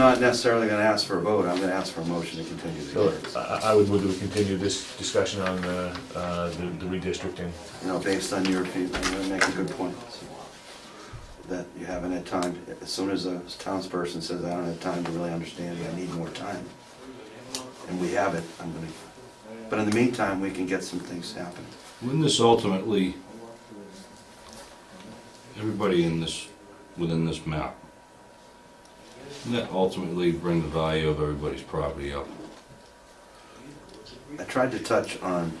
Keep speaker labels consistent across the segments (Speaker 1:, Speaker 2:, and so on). Speaker 1: Not necessarily gonna ask for a vote, I'm gonna ask for a motion to continue the
Speaker 2: So
Speaker 1: hearing.
Speaker 2: I- I, I would move to continue this discussion on uh, uh, the the redistricting.
Speaker 1: You know, based on your feedback, you make a good point. That you haven't had time, as soon as a townsperson says, I don't have time to really understand it, I need more time. And we have it, I'm gonna, but in the meantime, we can get some things happening.
Speaker 3: Wouldn't this ultimately, everybody in this, within this map, wouldn't that ultimately bring the value of everybody's property up?
Speaker 1: I tried to touch on,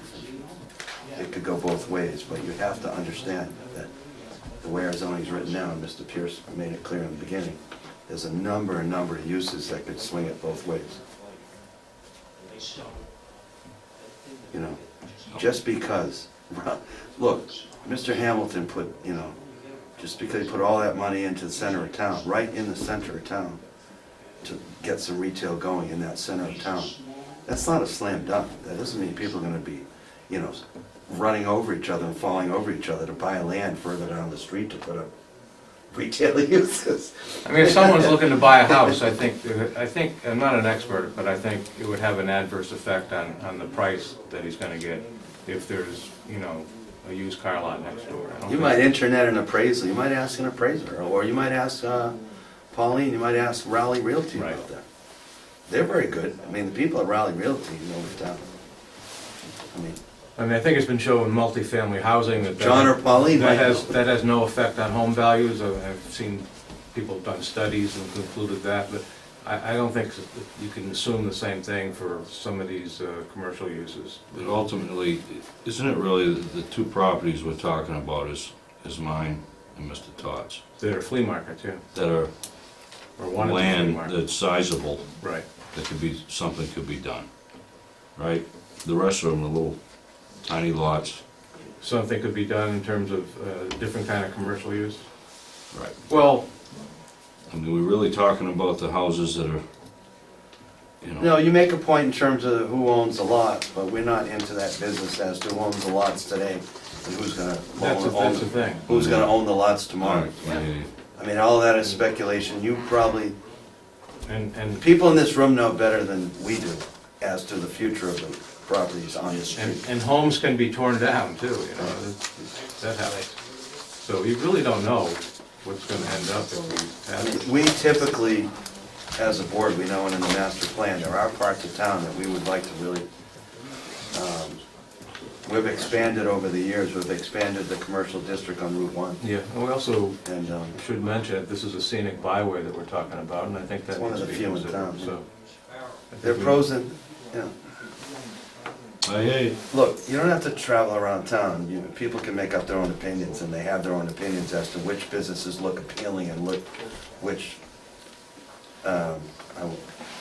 Speaker 1: it could go both ways, but you have to understand that the way our zoning is written now, and Mr. Pierce made it clear in the beginning, there's a number and number of uses that could swing it both ways. You know, just because, look, Mr. Hamilton put, you know, just because he put all that money into the center of town, right in the center of town, to get some retail going in that center of town, that's not a slam dunk. That doesn't mean people are gonna be, you know, running over each other and falling over each other to buy land further down the street to put up retail uses.
Speaker 4: I mean, if someone's looking to buy a house, I think, I think, I'm not an expert, but I think it would have an adverse effect on, on the price that he's gonna get if there's, you know, a used car lot next door. I don't
Speaker 1: You
Speaker 4: think-
Speaker 1: might internet an appraisal, you might ask an appraiser, or you might ask uh, Pauline, you might ask Raleigh Realty about
Speaker 4: Right.
Speaker 1: that. They're very good. I mean, the people at Raleigh Realty know the town. I mean,
Speaker 4: I mean, I think it's been shown in multifamily housing that. that-
Speaker 1: John or Pauline might
Speaker 4: That
Speaker 1: know.
Speaker 4: has, that has no effect on home values, I- I've seen people have done studies and concluded that, but I, I don't think that you can assume the same thing for some of these, uh, commercial uses.
Speaker 3: But ultimately, isn't it really the, the two properties we're talking about is, is mine and Mr. Todd's?
Speaker 4: They're flea markets, yeah,
Speaker 3: That are
Speaker 4: or one of the flea
Speaker 3: land
Speaker 4: markets.
Speaker 3: that's sizable,
Speaker 4: Right,
Speaker 3: that could be, something could be done, right? The rest of them are little tiny lots,
Speaker 4: something could be done in terms of, uh, different kind of commercial use?
Speaker 3: right?
Speaker 4: Well,
Speaker 3: I mean, we're really talking about the houses that are, you know.
Speaker 1: No, you make a point in terms of who owns the lots, but we're not into that business as to who owns the lots today and who's gonna
Speaker 4: that's, a-
Speaker 1: own,
Speaker 4: that's the
Speaker 1: own-
Speaker 4: thing. Mm-hmm.
Speaker 1: who's gonna own the lots
Speaker 3: All
Speaker 1: tomorrow.
Speaker 3: right, yeah, yeah, yeah.
Speaker 1: I mean, all that is speculation. You probably,
Speaker 4: And, and,
Speaker 1: people in this room know better than we do as to the future of the properties on the
Speaker 4: and,
Speaker 1: street.
Speaker 4: and homes can be torn down too, you know, that- that happens. So you really don't know what's gonna end up if we
Speaker 1: I
Speaker 4: have it.
Speaker 1: mean, we typically, as a board, we know and in the master plan, there are parts of town that we would like to really, um, we've expanded over the years, we've expanded the commercial district on Route One.
Speaker 4: Yeah, and we also
Speaker 1: And, um,
Speaker 4: should mention, that this is a scenic byway that we're talking about, and I think
Speaker 1: It's
Speaker 4: that
Speaker 1: one of
Speaker 4: needs to
Speaker 1: the
Speaker 4: be
Speaker 1: few in town,
Speaker 4: considered,
Speaker 1: yeah.
Speaker 4: so. I think
Speaker 1: There are
Speaker 4: we-
Speaker 1: pros and, you know,
Speaker 3: I hear you.
Speaker 1: look, you don't have to travel around town, you know, people can make up their own opinions, and they have their own opinions as to which businesses look appealing and look, which, um, I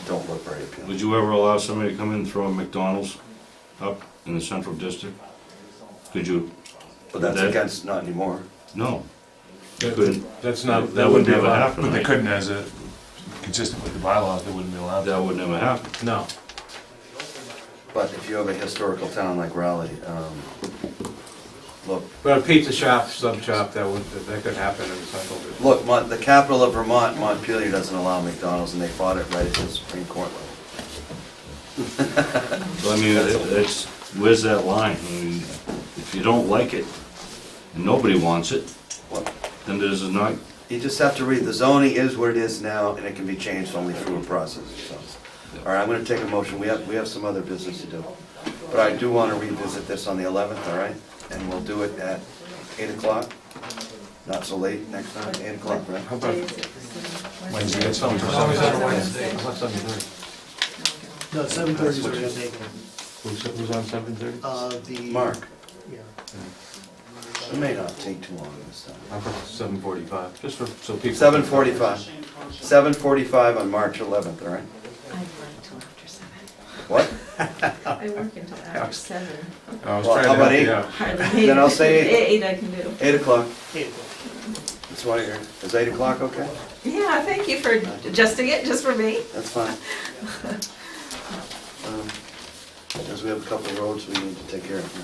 Speaker 1: don't look very appealing.
Speaker 3: Would you ever allow somebody to come in and throw a McDonald's up in the central district? Could you?
Speaker 1: But that's
Speaker 3: that-
Speaker 1: against, not anymore.
Speaker 3: No. You
Speaker 2: That-
Speaker 3: couldn't.
Speaker 4: That's not,
Speaker 3: That
Speaker 4: that
Speaker 3: would
Speaker 4: wouldn't be
Speaker 3: never
Speaker 4: allowed.
Speaker 3: happen,
Speaker 2: But they
Speaker 3: right?
Speaker 2: couldn't as a, consistent with the bylaws, they wouldn't be allowed.
Speaker 3: That would never happen.
Speaker 4: No,
Speaker 1: But if you have a historical town like Raleigh, um, look,
Speaker 4: but a pizza shop, sub shop, that would, that could happen in Central District.
Speaker 1: look, Mon- the capital of Vermont, Montpelier, doesn't allow McDonald's, and they fought it right at the Supreme Court level.
Speaker 3: So I mean, it- it's, where's that line? I mean, if you don't like it, and nobody wants it,
Speaker 1: Well,
Speaker 3: then there's not,
Speaker 1: You just have to read, the zoning is what it is now, and it can be changed only through a process, so. All right, I'm gonna take a motion, we have, we have some other business to do. But I do wanna revisit this on the eleventh, all right? And we'll do it at eight o'clock, not so late next time, eight o'clock, right?
Speaker 4: How about,
Speaker 2: Wednesday, it's something.
Speaker 4: Always on a Wednesday. how about seven thirty?
Speaker 5: No, seven thirty's already been taken.
Speaker 4: Who's, who's on seven thirty?
Speaker 5: Uh, the.
Speaker 1: Mark,
Speaker 5: Yeah.
Speaker 1: it may not take too long this time.
Speaker 4: How about seven forty-five, just for, so people.
Speaker 1: Seven forty-five, seven forty-five on March eleventh, all right?
Speaker 6: I work till after seven.
Speaker 1: What?
Speaker 6: I work until after seven.
Speaker 4: I was
Speaker 1: Well,
Speaker 4: trying to
Speaker 1: how about
Speaker 4: help you
Speaker 1: eight?
Speaker 4: out.
Speaker 6: Hardly.
Speaker 1: Then I'll say
Speaker 6: Eight I can do.
Speaker 1: Eight o'clock,
Speaker 5: Eight o'clock.
Speaker 1: that's why you're, is eight o'clock okay?
Speaker 6: Yeah, thank you for adjusting it just for me.
Speaker 1: That's fine. Um, Because we have a couple of roads we need to take care of. here,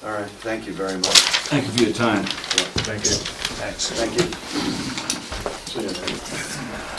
Speaker 1: so. All right, thank you very much.
Speaker 3: thank you for your time.
Speaker 1: Yeah,
Speaker 4: Thank you.
Speaker 2: Thanks.
Speaker 1: Thank you. See you.